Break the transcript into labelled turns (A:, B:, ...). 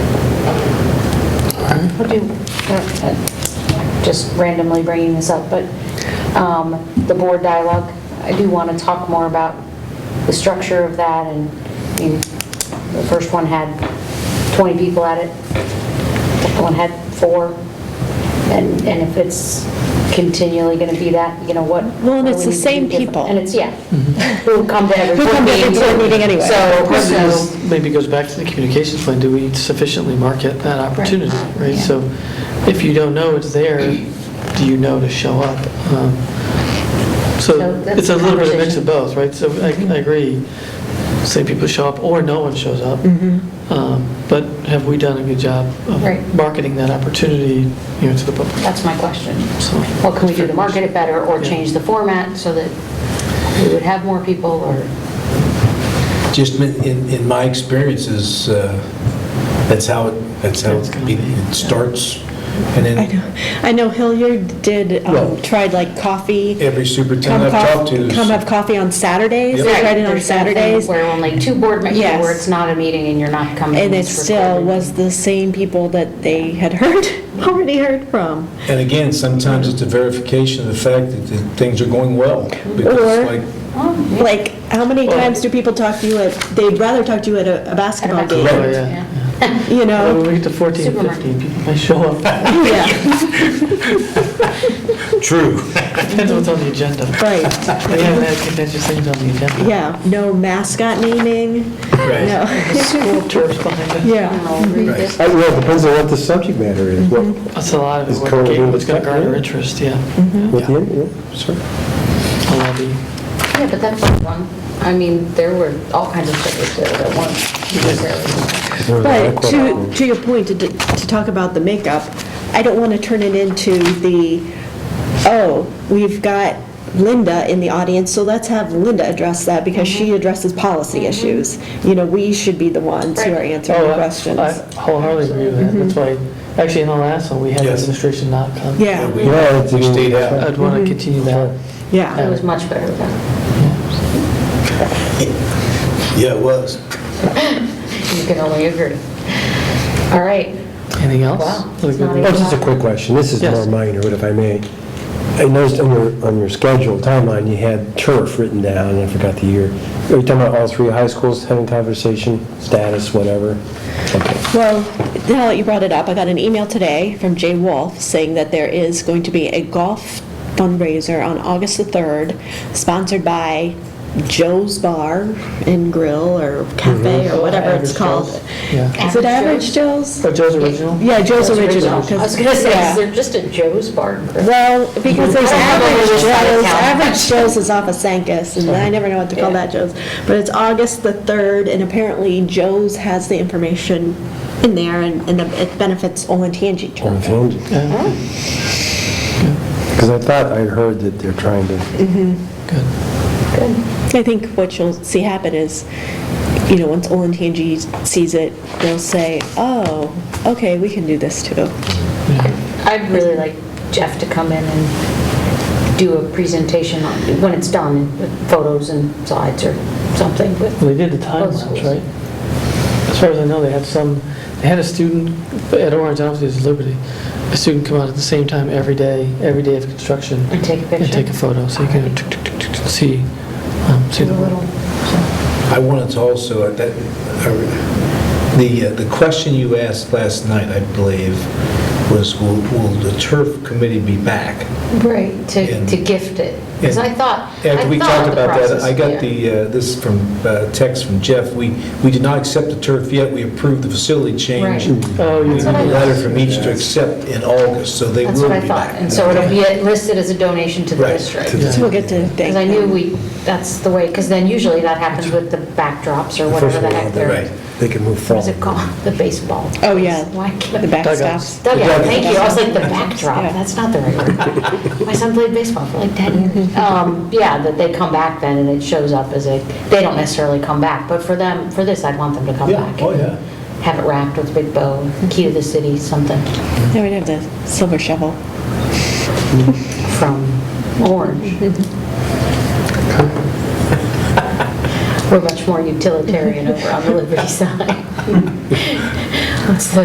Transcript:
A: Would Um, you, uh, uh, just randomly bringing this up, but um, the board dialogue, I do want to talk more about the structure of that, and I mean, the first one had 20 people at it, the second one had four, and, and if it's continually going to be that, you know, what...
B: Well, and
A: what
B: it's
A: we need to do
B: the same
A: different.
B: people.
A: And it's, yeah, who come to every
B: Who
A: board
B: come to every
A: meeting.
B: board meeting anyway.
A: So-
C: Question
A: so-
C: is, maybe goes back to the communications plan, do we sufficiently market that opportunity, right? So if you don't know it's there, do you know to show up? Um, So
A: So that's
C: it's a
A: the
C: little bit of a mix
A: conversation.
C: of both, right? So I I agree, say people show up or no one shows up. Um, But have we done a good job of
A: Mm-hmm. Right.
C: marketing that opportunity, you know, to the public?
A: That's my question.
C: So-
A: what can we do to market it better or change the format so that we would have more people or,
D: Just in- in, in my experiences, uh, that's how, it that's how
C: It's gonna
D: it-
C: be,
D: it starts. And
B: I
D: then
B: know, I know Hilliard did, um,
D: Well-
B: tried like coffee.
D: every
B: Come
D: superintendent I've
B: cof-
D: talked to
B: come
D: is
B: have coffee on Saturdays, they
D: Yep.
B: tried it on
A: There's something
B: Saturdays.
A: Where only two board members,
B: Yes.
A: where it's not a meeting and you're not coming.
B: And it
A: it's
B: still
A: recorded.
B: was the same people that they had heard, already heard from.
D: And again, sometimes it's a verification of the fact that that things are going well. Because
B: Or-
D: like,
A: Oh, yeah.
B: Like, how many
C: Well-
B: times do people talk to you at, they'd rather talk to you at a a basketball
A: basketball
B: game,
C: Oh, yeah.
A: Yeah.
B: you
C: Well, When
B: know?
C: we get to 14,
A: Oh, Supermarket.
C: 15, people may show up,
B: Yeah,
D: true.
C: depends what's on the agenda.
B: right,
C: We haven't had contentious things on the agenda.
B: yeah, no mascot naming,
D: Right.
B: no,
C: School tours behind it.
A: I don't
B: yeah.
A: know, read this.
E: Uh, Well, it depends on what the subject matter is, what,
A: Mm-hmm.
C: That's a lot of it,
E: It's
C: what
E: currently
C: game
E: being
C: was going to
E: discussed,
C: garner
E: yeah.
C: interest, yeah.
E: what the, yeah, sure.
C: A lot of
A: Yeah, but that's like one, I mean, there were all kinds of tickets there that weren't.
E: There was a lot of
B: But to,
E: questions.
B: to your point, to, to talk about the makeup, I don't want to turn it into the, oh, we've got Linda in the audience, so let's have Linda address that because she addresses policy issues. You know, we should be the ones who are answering the
C: the-
B: questions.
C: Oh, I I wholeheartedly agree with that. That's why, actually, in the last one, we had the
D: Yes.
C: administration not come.
B: Yeah.
D: We
E: Yeah, it's-
D: we stayed out.
C: I'd want to continue that.
A: It
B: Yeah,
A: was much better than,
D: Yeah, it was.
A: you can only agree. All right,
C: Anything else?
A: Wow.
C: Look
A: It's
C: good.
A: not
E: Oh, just a quick question, this is
C: Yes.
E: more minor, but if I may. I noticed on your, on your schedule timeline, you had turf written down, and I forgot the year. Are you talking about all three high schools having conversation, status, whatever? Okay.
B: well, now that you brought it up, I got an email today from Jay Wolf saying that there is going to be a golf fundraiser on August the 3rd, sponsored by Joe's Bar and Grill or Cafe or whatever it's
C: Mm-hmm. Oh, Average
B: called.
C: Joe's, Yeah.
B: Is it Average Joe's?
C: But Joe's original?
B: Yeah, Joe's
A: I
B: original. 'cause-
A: was gonna say,
B: yeah.
A: is there just a Joe's Bar and Grill?
B: Well, because there's
A: I don't know
B: Average
A: where
B: Joe's,
A: this out of town.
B: Average Joe's is off of Sankas, and I never know what to call
A: Yeah.
B: that Joe's. But it's August the 3rd, and apparently Joe's has the information in there, and and it benefits Olentangy.
E: Or
B: children.
E: offended.
A: Uh-huh.
C: Yeah.
E: Because I thought I heard that they're trying to,
C: Good.
B: I think what you'll see happen is, you know, once Olentangy sees it, they'll say, oh, okay, we can do this too.
A: I'd really like Jeff to come in and do a presentation on, when it's done, with photos and slides or something, but
C: Well, They did the timelines,
A: schools.
C: right? As far as I know, they had some, they had a student at Orange, I don't know if it was Liberty, a student come out at the same time every day, every day of construction.
A: and take a
C: And take a
A: picture.
C: photo, so you can tick, tick, tick, tick, tick, see, um, see the world.
D: I wanted to also, uh, that, I- the, uh, the question you asked last night, I believe, was will, will the turf committee be back?
A: Right, to,
D: And-
A: to gift it. Because I thought, I
D: After we
A: thought
D: talked
A: the
D: about that,
A: process.
D: I
A: yeah.
D: got the, uh, this from, uh, text from Jeff, we, we did not accept the turf yet, we approved the facility change.
A: Right.
C: Oh, you
D: We need
A: what
D: a
A: I-
D: letter from each to accept in August, so they will
A: That's
D: be
A: what I
D: back.
A: thought, and so it'll be listed as a donation to the
D: Right,
A: district.
D: to the-
B: So we'll get to thank
A: Because I knew
B: them.
A: we, that's the way, because then usually that happens with the backdrops or
E: the
A: whatever
E: first
A: the
E: one,
A: heck
E: they-
A: they're,
D: Right.
E: they can move
A: what
E: forward.
A: is it called? The baseball.
B: Oh, yeah.
A: Why can't
B: The
C: Dugouts.
B: backstops.
A: Dugout, thank you. I was like, the
B: Yeah.
A: backdrop, that's not the right word. My son played baseball for like 10 years. Um, Yeah, that they come back then and it shows up as a, they don't necessarily come back, but for them, for this, I'd want them to come
D: Yeah,
A: back.
D: oh,
A: and
D: yeah. Mm-hmm.
A: Have it wrapped with a big bow, key to the city, something
B: They would have the silver shovel.
A: from Orange.
D: Mm-hmm.
A: We're much more utilitarian over on the Liberty side. What's the